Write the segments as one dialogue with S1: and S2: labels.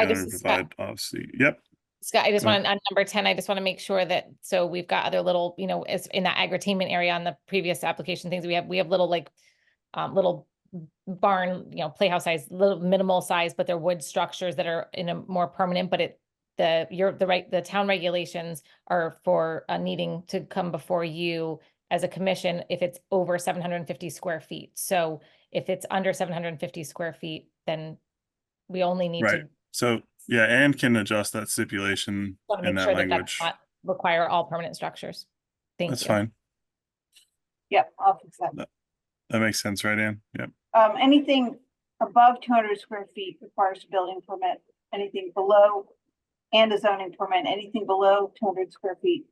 S1: I
S2: together
S1: just
S2: and provide
S1: suspect-
S2: obviously, yep,
S1: Scott, I just
S2: Yeah.
S1: want, on number ten, I just want to make sure that, so we've got other little, you know, as in that agri-tainment area on the previous application things, we have, we have little like, um, little barn, you know, playhouse size, little minimal size, but they're wood structures that are in a more permanent, but it, the, your, the right, the town regulations are for, uh, needing to come before you as a commission if it's over seven hundred and fifty square feet. So if it's under seven hundred and fifty square feet, then we only need
S2: Right.
S1: to
S2: so, yeah, and can adjust that stipulation
S1: Want to
S2: in
S1: make
S2: that
S1: sure that that does
S2: language,
S1: not require all permanent structures. Thank you.
S2: that's fine,
S3: Yep, I'll fix that.
S2: that makes sense, right, Ann? Yep,
S3: Um, anything above two hundred square feet requires a building permit, anything below and a zoning permit, anything below two hundred square feet,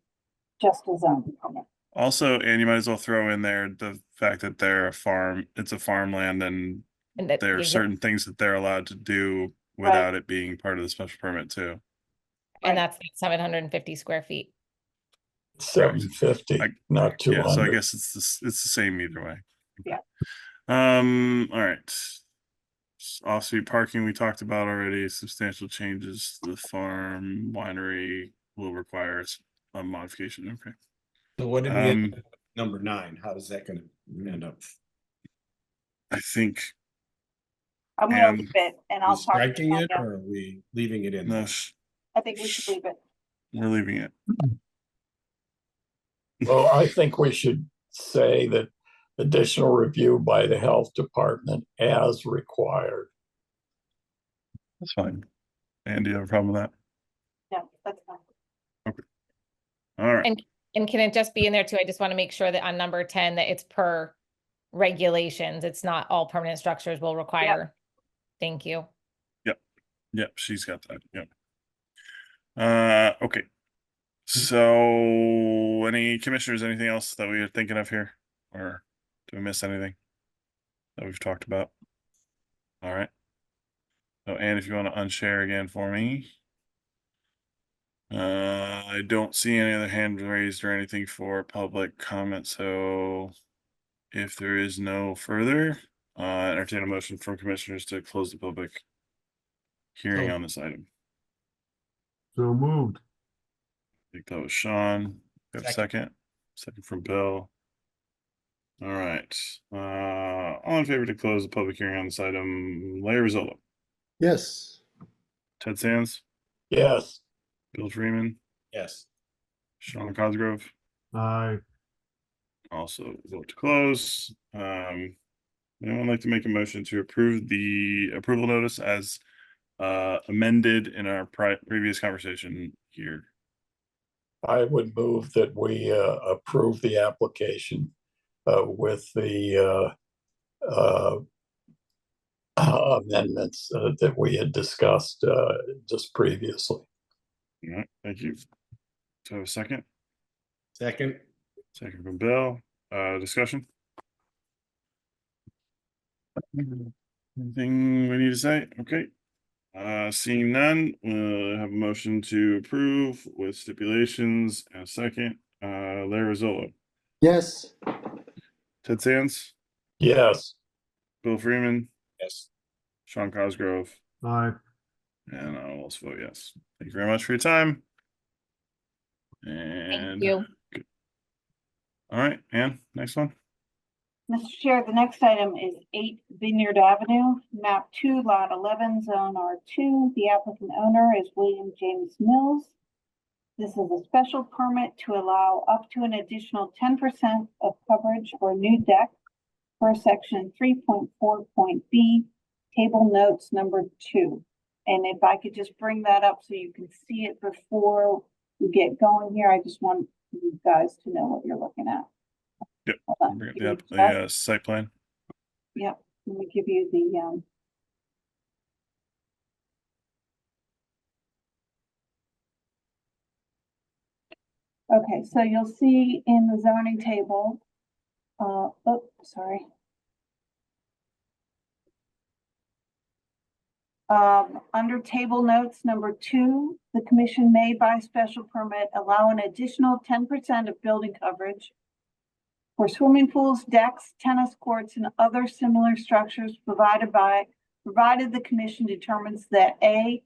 S3: just a zoning permit.
S2: also, Ann, you might as well throw in there the fact that they're a farm, it's a farmland and
S1: And that.
S2: there are
S1: yeah,
S2: certain things that they're allowed to do
S3: Right.
S2: without it being part of the special permit too.
S1: And that's seven hundred and fifty square feet.
S4: Seven fifty,
S2: I-
S4: not two
S2: Yeah, so I
S4: hundred.
S2: guess it's the, s- it's the same either way.
S3: Yeah.
S2: Um, all right. S- Off-street parking, we talked about already, substantial changes, to the farm winery will require s- a modification, okay.
S5: So what did we end
S2: Um,
S5: up with number nine? How is that gonna end up?
S2: I think,
S3: I'm gonna
S2: And
S3: leave it and
S5: Are we
S3: I'll talk. to
S5: Striking it
S3: Tanya.
S5: or are we leaving it in?
S2: no,
S5: there?
S2: sh-
S3: I think we should leave it.
S2: we're leaving it.
S4: Well, I think we should say that additional review by the health department as required.
S2: That's fine. And do you have a problem with that?
S3: No, that's fine.
S2: All right,
S1: And can it just be in there too? I just want to make sure that on number ten, that it's per regulations. It's not all permanent structures will require. Thank you.
S2: yep, she's got that, yep. Uh, okay. So, any commissioners, anything else that we are thinking of here? Or do we miss anything? That we've talked about? All right. So, and if you want to unshare again for me. Uh, I don't see any other hand raised or anything for public comment, so. If there is no further, uh, entertain a motion from commissioners to close the public. Hearing
S6: So-
S2: on this item.
S6: So moved.
S2: I think that was Sean. Got a second, second from Bill. All right, uh, all in favor to close the public hearing on this item, Larry Rizzolo,
S6: Yes.
S2: Ted Sands,
S4: Yes,
S2: Bill Freeman,
S5: Yes.
S2: Sean Cosgrove.
S6: Aye.
S2: Also vote to close. Um, anyone like to make a motion to approve the approval notice as uh amended in our pri- previous conversation here?
S4: I would move that we uh, approve the application uh, with the uh, uh, amendments uh, that we had discussed uh, just previously.
S2: All right, thank you. So a second,
S5: Second?
S2: second from Bill, uh, discussion? Anything we need to say? Okay. Uh, seeing none, uh, have a motion to approve with stipulations and a second, uh, Larry Rizzolo,
S6: Yes.
S2: Ted Sands,
S4: Yes,
S2: Bill Freeman,
S5: Yes.
S2: Sean Cosgrove,
S6: Aye.
S2: and I'll also vote yes. Thank you very much for your time.
S1: Thank
S2: And,
S1: you.
S2: all right, Ann, next one.
S3: Mr. Chair, the next item is eight Vineyard Avenue, map two, lot eleven, zone R two. The applicant owner is William James Mills. This is a special permit to allow up to an additional ten percent of coverage for a new deck per section three point four point B, table notes number two. And if I could just bring that up so you can see it before we get going here, I just want you guys to know what you're looking at.
S2: Yep,
S3: Hold on,
S2: Bring up
S3: give me
S2: the, app-
S3: just
S2: the uh, site plan.
S3: Yep, let me give you the, um. Okay, so you'll see in the zoning table, uh, oh, sorry. Um, under table notes number two, the commission may by special permit allow an additional ten percent of building coverage for swimming pools, decks, tennis courts, and other similar structures provided by, provided the commission determines that A,